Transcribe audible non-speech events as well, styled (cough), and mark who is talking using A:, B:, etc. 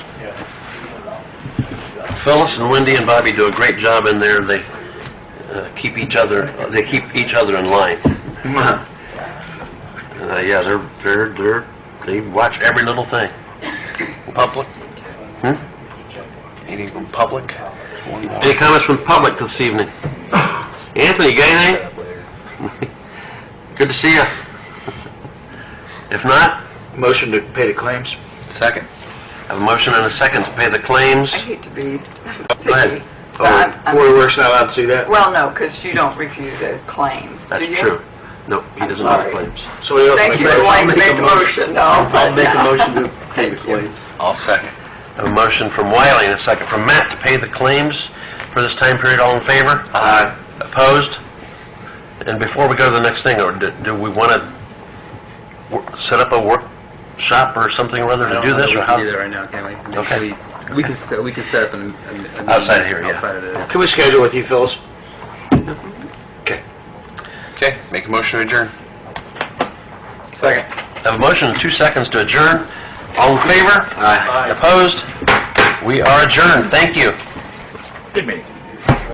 A: Phyllis and Wendy and Bobby do a great job in there. They uh, keep each other, they keep each other in line. Uh, yeah, they're, they're, they're, they watch every little thing. Public? Hmm? Anything from public? Any comments from public this evening? Anthony, you got anything? Good to see you. (laughs) If not? Motion to pay the claims. Second. Have a motion and a second to pay the claims.
B: I hate to be
A: Go ahead. Oh,
B: picky, but I'm- I'm-
A: works not allowed to see that?
B: well, no, because you don't review the claim, do
A: That's
B: you?
A: true. No, he doesn't have
B: sorry.
A: claims. Somebody
B: Thank you for wanting to make a motion, no.
A: to (laughs) pay
B: (laughs)
A: the claims. I'll second. A motion from Wiley and a second from Matt to pay the claims for this time period. All in favor? Aye. Opposed? And before we go to the next thing, or do, do we want to set up a workshop or something or other to do this, or how?
C: that right now, can we?
A: Okay.
C: We- We can, set- we can set up an... an- an-
A: Outside here, yeah.
C: Outside of the...
A: Can we schedule with you, Phyllis? Okay. Okay, make a motion to adjourn. Second. Have a motion and two seconds to adjourn. All in favor? Aye. Opposed? We are adjourned. Thank you.
C: Good meeting.